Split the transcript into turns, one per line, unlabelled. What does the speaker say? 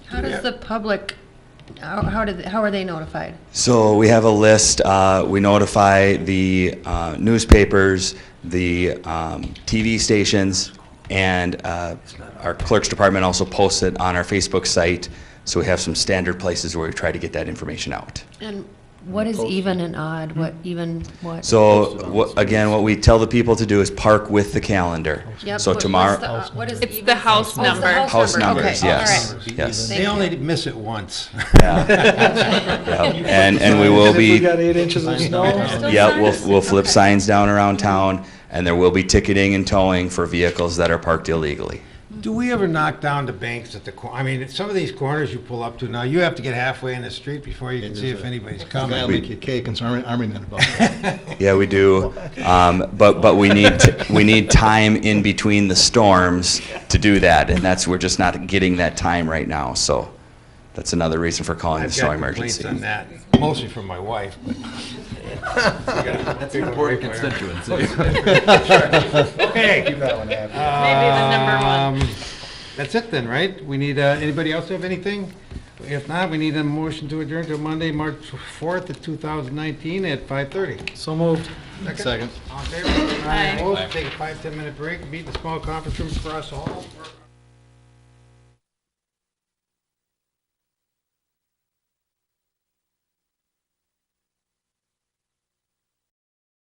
How does the public, how, how did, how are they notified?
So we have a list. Uh, we notify the uh, newspapers, the um, TV stations, and uh, our clerk's department also posts it on our Facebook site. So we have some standard places where we try to get that information out.
And what is even and odd, what even, what?
So wha- again, what we tell the people to do is park with the calendar.
Yep, what- what's
So
the
tomorrow,
odd- What is
It's
even?
the house
Oh, it's the
number.
house numbers,
okay, all
yes,
right.
yes.
Thank
They
you.
only miss it once.
And, and we will be.
We got eight inches of snow.
Yeah, we'll,
signs?
we'll flip
Okay.
signs down around town, and there will be ticketing and towing for vehicles that are parked illegally.
Do we ever knock down the banks at the cor, I mean, some of these corners you pull up to now, you have to get halfway in the street before you can see if anybody's
I'll
coming.
make you cake and some army, army men about that.
Yeah, we do, um, but, but we need, t- we need time in between the storms to do that, and that's, we're just not getting that time right now, so that's another reason for calling the
I've
snow
got complaints
emergency.
on that, mostly from my wife, but. That's important constituency. Okay.
Maybe the number one.
Um, That's it then, right? We need, uh, anybody else have anything? If not, we need a motion to adjourn to Monday, March 4th of 2019 at 5:30.
So moved. Second.
All in favor? Aye. Opposed? Take a five, 10-minute break, meet in the small conference room across the hall.